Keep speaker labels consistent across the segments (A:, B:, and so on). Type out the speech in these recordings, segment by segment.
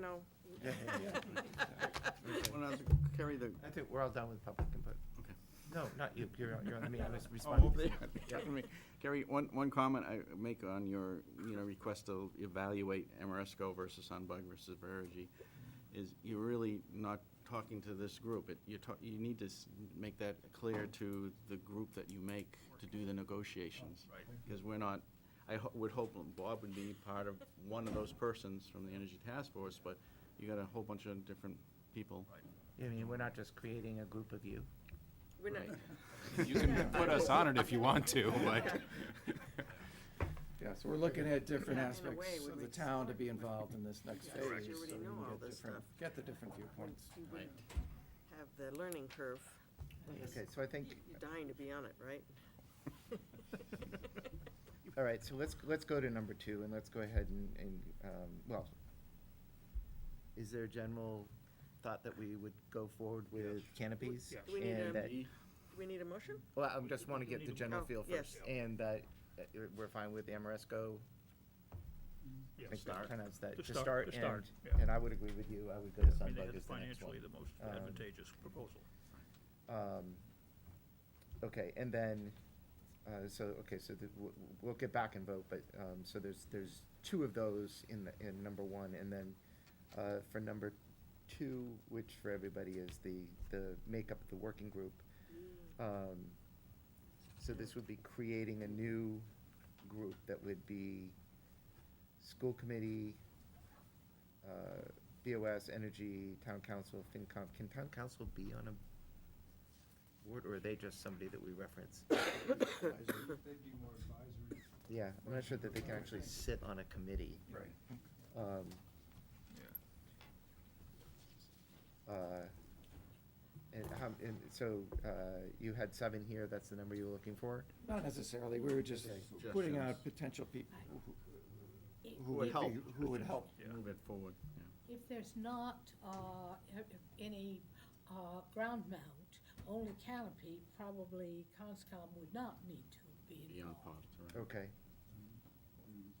A: know,
B: When I was- Carry the,
C: I think we're all done with public input.
B: Okay.
C: No, not you, you're, you're on me, I was
B: oh,
C: responding.
B: over there. Carrie, one, one comment I make on your, you know, request to evaluate Amoresco versus Sunbug versus Verigy is you're really not talking to this group. It, you talk, you need to s- make that clear to the group that you make to do the negotiations. Right. Because we're not, I ho- would hope Bob would be part of one of those persons from the Energy Task Force, but you got a whole bunch of different people.
C: I mean, we're not just creating a group of you.
A: we're not,
B: Right.
D: You can put us on it if you want to, but.
E: Yeah, so we're looking at different
A: Yeah, in a way,
E: aspects
A: would
E: of the
A: make
E: town to be involved in this next
A: Yeah,
E: phase.
A: 'cause you
E: so
A: already
E: we
A: know
E: can
A: all
E: get
A: this
E: different-
A: stuff.
E: Get the different viewpoints.
A: you wouldn't have the learning curve.
C: Okay, so I think,
A: You're dying to be on it, right?
C: all right, so let's, let's go to number two, and let's go ahead and, and, um, well, is there a general thought that we would go forward with canopies?
A: Do we need
C: And
A: a-
C: that-
A: Do we need a motion?
C: Well, I just wanna get the general
A: Oh,
C: feel
A: yes.
C: first, and that, uh, we're fine with Amoresco, I think we pronounced that,
F: To
C: to
F: start-
C: start,
F: to start,
C: and,
F: yeah.
C: and I would agree with you, I would go
F: I
C: to
F: mean,
C: Sunbug
F: they
C: as
F: had
C: the next
F: financially
C: one.
F: the most
C: Um,
F: advantageous proposal.
C: Um, Okay, and then, uh, so, okay, so the- w- w- we'll get back and vote, but, um, so there's, there's two of those in, the- in number one, and then uh, for number two, which for everybody is the, the makeup of the working group. um, So this would be creating a new group that would be school committee, uh, BOS, energy, town council, FinCom. Can town council be on a board, or are they just somebody that we reference?
G: They'd be more advisory.
C: Yeah, I'm not sure that they can actually sit on a committee.
G: Right.
C: Um, uh, And how, and so, uh, you had seven here, that's the number you were looking for?
E: Not necessarily, we were just putting out
B: Suggestions.
E: potential people who- who
B: Would
E: would
B: help.
E: be, who would help.
B: Move it forward, yeah.
H: If there's not uh, if- if any uh, ground mount, only canopy, probably Conscom would not need to be
B: Beyond
H: involved.
B: pods, right.
C: Okay.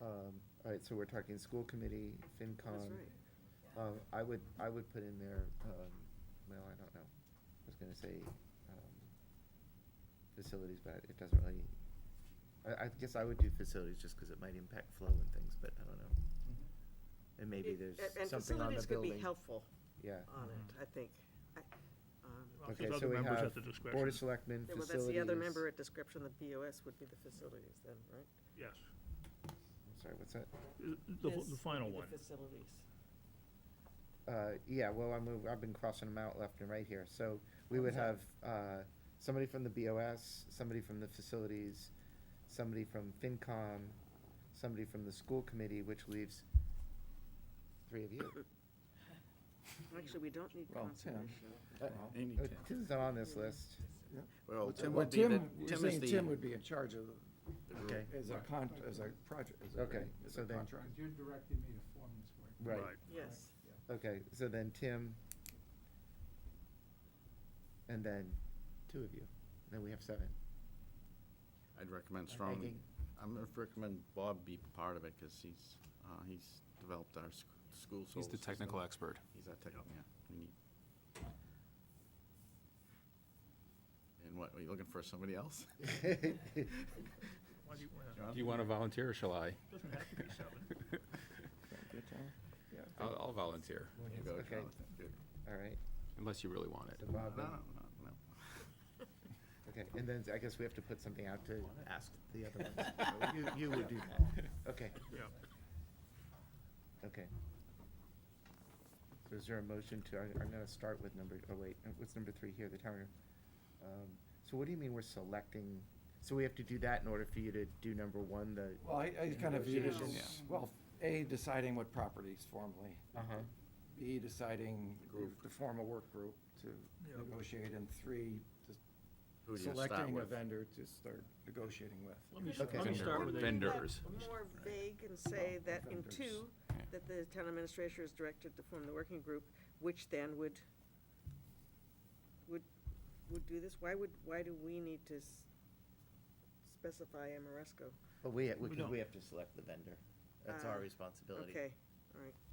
C: Um, all right, so we're talking school committee,
A: That's
C: FinCom.
A: right.
C: Um, I would, I would put in there, um, well, I don't know, I was gonna say, um, facilities, but it doesn't really, I, I guess I would do facilities just cause it might impact flow and things, but I don't know. And maybe
A: Mm-hmm. It- a-
C: there's something on the
A: And facilities could be
C: building,
A: helpful
C: yeah.
A: on it, I think. I- um,
C: Okay,
F: Because
C: so
F: other
C: we
F: members
C: have
F: have the discretion.
C: Board of Selectmen,
A: yeah, Well,
C: facilities.
A: that's the other member at description, the BOS would be the facilities then, right?
F: Yes,
C: I'm Sorry, what's that?
F: The- the, the final one.
C: Uh, yeah, well, I'm, I've been crossing them out left and right here. So we would have, uh, somebody from the BOS, somebody from the facilities, somebody from FinCom, somebody from the school committee, which leaves three of you.
A: Actually, we don't need
E: Well, Tim.
A: conservation.
C: Uh,
B: They need
C: uh,
B: Tim.
C: Tim's not on this list.
B: Well, Tim
E: Well,
B: would be the,
E: Tim, we're
B: Tim is
E: saying Tim
B: the,
E: would be in charge of,
C: Okay,
E: as a con, as a project, as a,
C: Okay,
E: as
C: so
E: a
C: then-
E: contract.
G: Because you're directing me to form this work.
C: right.
A: Yes,
C: Okay, so then Tim. And then two of you. Then we have seven.
B: I'd recommend strongly,
C: thinking-
B: I'm gonna recommend Bob be part of it, because he's, uh, he's developed our sc- school soul
D: He's the
B: system.
D: technical expert.
B: He's our technical, yeah, we need. And what, are you looking for somebody else?
F: Why do you wanna-
B: John?
D: Do you want to volunteer or shall I?
F: Doesn't have to be seven.
E: Good, Tom? Yeah.
D: I'll, I'll volunteer,
B: You go,
C: Okay.
B: Jonathan. Good.
C: All right.
D: unless you really want
C: So
D: it.
C: Bob uh, and-
B: No, no, no, no.
C: Okay, and then I guess we have to put something out to ask the other ones. You, you would do that. Okay,
F: Yeah.
C: okay. So is there a motion to, I'm, I'm gonna start with number, oh wait, uh, what's number three here, the town? Um, so what do you mean we're selecting, so we have to do that in order for you to do number one, the,
E: Well, I, I kind of viewed it
C: Negotiations.
E: as, well, A, deciding what properties formally.
C: uh-huh,
E: B, deciding to form a work group
F: Yeah.
E: to negotiate, and three, just
B: Who do you start
E: selecting a
B: with?
E: vendor to start negotiating with.
F: Let me, s-
C: Okay.
F: let me
D: Vendor-
F: start with a,
D: vendor.
A: Leave that
D: Vendors.
A: More vague and say that in
E: vendors.
A: two,
D: Yeah.
A: that the town administrator is directed to form the working group, which then would, would, would do this. Why would, why do we need to s- specify Amoresco?
C: but we, because
F: don't.
C: we have to select the vendor. That's our
A: Ah,
C: responsibility.
A: Okay, all right.